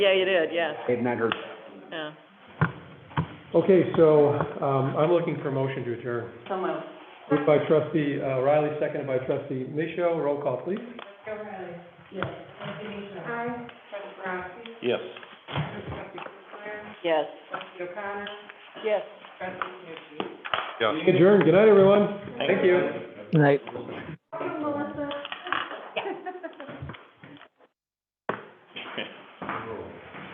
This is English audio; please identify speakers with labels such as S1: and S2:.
S1: Yeah, you did, yes,
S2: They've not heard.
S1: yeah.
S3: Okay, so, um, I'm looking for a motion to adjourn.
S1: So moved.
S3: Moved by trustee uh, Riley, seconded by trustee Micho. Roll call, please.
S4: Yes.
S1: Yes. Yes.
S4: Yes.
S3: Adjourn. Good night, everyone. Thank you.
S5: Right.